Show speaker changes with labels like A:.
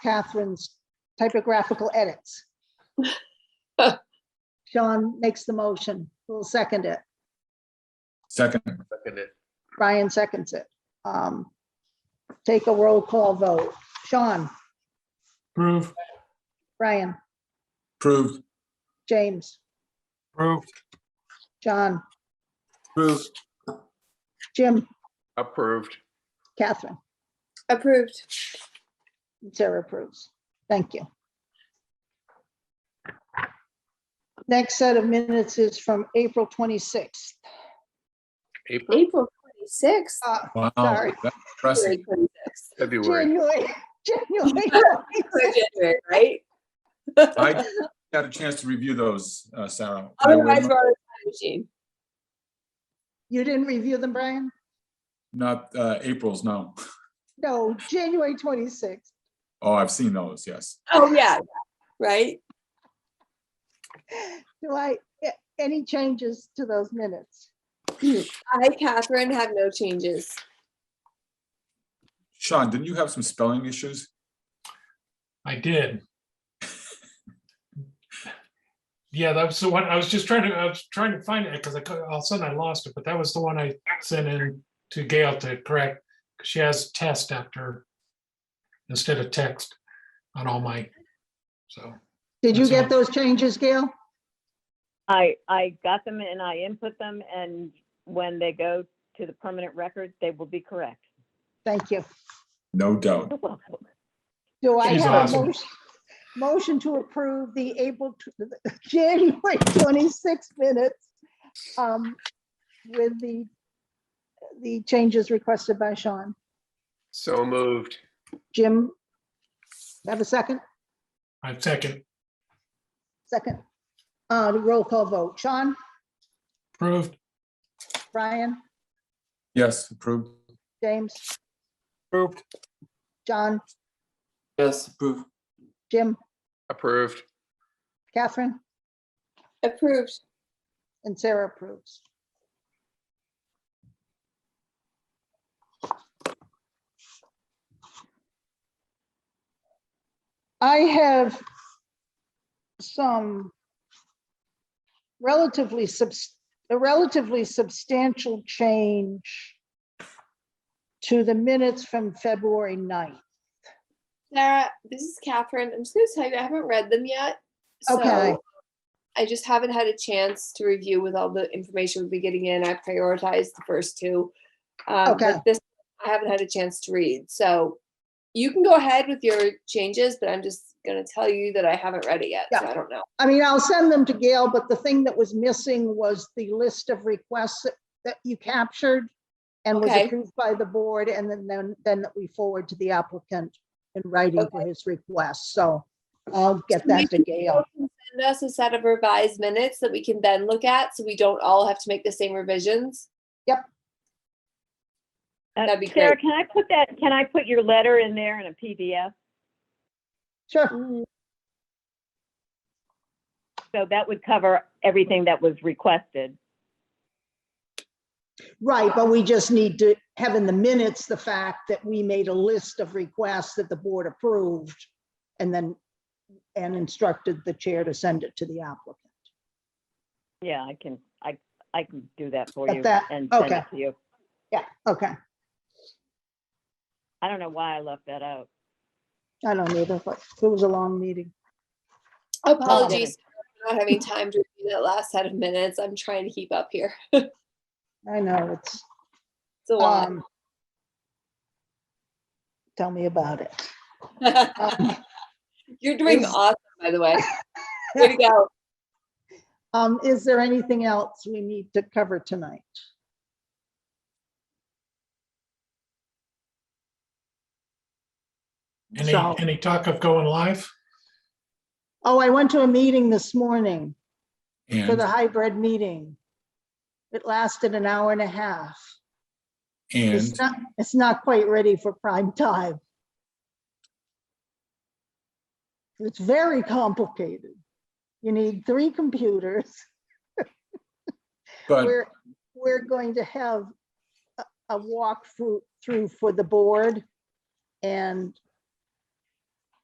A: Catherine's typographical edits. Sean makes the motion. We'll second it.
B: Second,
C: Second it.
A: Brian seconds it. Um, Take a roll call vote. Sean,
D: Approved.
A: Brian,
B: approved.
A: James,
D: Approved.
A: John,
B: Approved.
A: Jim,
C: Approved.
A: Catherine.
E: Approved.
A: Sarah approves. Thank you. Next set of minutes is from April 26th.
C: April,
E: April twenty-sixth.
A: Uh,
B: Wow,
A: Sorry.
B: Oh, that's impressive.
C: February.
A: January, January.
E: Right?
B: I got a chance to review those, uh, Sarah. I would
E: Otherwise, we're on a time machine.
A: You didn't review them, Brian?
B: Not, uh, April's, no.
A: No, January 26th.
B: Oh, I've seen those, yes.
E: Oh, yeah, yeah, right?
A: Do I, a- any changes to those minutes?
E: I, Catherine, have no changes.
B: Sean, didn't you have some spelling issues?
D: I did. Yeah, that was the one, I was just trying to, I was trying to find it, because I, cou- all of a sudden I lost it, but that was the one I sent in to Gail to correct, 'cause she has test after, instead of text on all my, so,
A: Did you
D: That's
A: get
D: all.
A: those changes, Gail?
F: I, I got them and I input them, and when they go to the permanent record, they will be correct. uh,
A: Thank you.
B: No doubt.
F: You're welcome.
A: Do I
D: She's
A: have a
D: awesome.
A: motion- motion to approve the April, tw- the January 26 minutes um, with the, the changes requested by Sean?
C: So moved.
A: Jim? Have a second?
D: I second,
A: Second. Uh, Roll call vote. Sean?
D: approved,
A: Brian?
B: Yes, approved.
A: James?
D: Approved.
A: John?
G: Yes, approve.
A: Jim?
C: Approved.
A: Catherine?
E: Approved.
A: And Sarah approves. I have some relatively subs, a relatively substantial change to the minutes from February 9th.
E: Sarah, this is Catherine. I'm just gonna tell you, I haven't read them yet.
A: Okay.
E: So I just haven't had a chance to review with all the information we've been getting in. I prioritized the first two. Um,
A: Okay.
E: but This, I haven't had a chance to read, so you can go ahead with your changes, but I'm just gonna tell you that I haven't read it yet, so I don't know.
A: I mean, I'll send them to Gail, but the thing that was missing was the list of requests that- that you captured and was
E: Okay.
A: approved by the board and then, then, then that we forward to the applicant in writing for his request. So I'll get that to Gail.
E: Send us a set of revised minutes that we can then look at, so we don't all have to make the same revisions.
F: Uh,
E: That'd be
F: Sarah,
E: great.
F: can I put that, can I put your letter in there in a PDF?
A: Sure.
E: Mm.
F: So that would cover everything that was requested.
A: Right, but we just need to have in the minutes the fact that we made a list of requests that the board approved and then, and instructed the chair to send it to the applicant.
F: Yeah, I can, I, I can do that for
A: Got
F: you
A: that.
F: and send
A: Okay.
F: it to you.
A: Yeah, okay.
F: I don't know why I left that out.
A: I don't either, but it was a long meeting.
E: Apologies for not having time to read that last set of minutes. I'm trying to keep up here.
A: I know, it's.
E: It's a lot.
A: Um, Tell me about it. um,
E: You're doing
A: is-
E: awesome, by the way. Way to go.
A: Um, is there anything else we need to cover tonight?
D: any,
A: So-
D: any talk of going live?
A: Oh, I went to a meeting this morning for the
B: And,
A: hybrid meeting. It lasted an hour and a half.
B: and
A: It's not, it's not quite ready for prime time. It's very complicated. You need three computers.
B: But
A: We're, we're going to have a- a walkthrough through for the board and